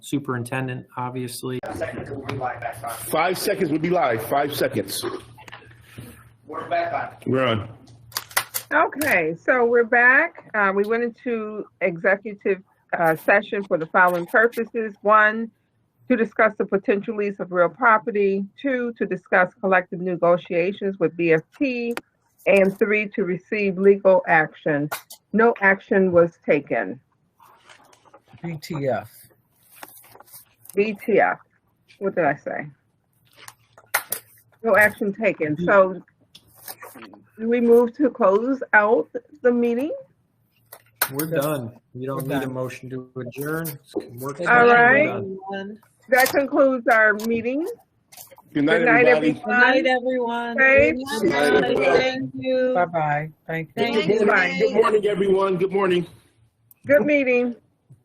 superintendent, obviously. Seconds will be live back on. Five seconds, we'll be live. Five seconds. We're back on. We're on. Okay, so we're back. Uh, we went into executive, uh, session for the following purposes. One, to discuss the potential lease of real property. Two, to discuss collective negotiations with BFT. And three, to receive legal action. No action was taken. BTF. BTF. What did I say? No action taken. So do we move to close out the meeting? We're Yes. done. You don't We're need a done. motion to adjourn. Work- All We're right. done. That concludes our meeting. Good night, Good night, everybody. Good night, everyone. Safe. Good night. Thank you. Bye-bye. Thank you. Thank Good you. morning. Good morning, everyone. Good morning. Good meeting.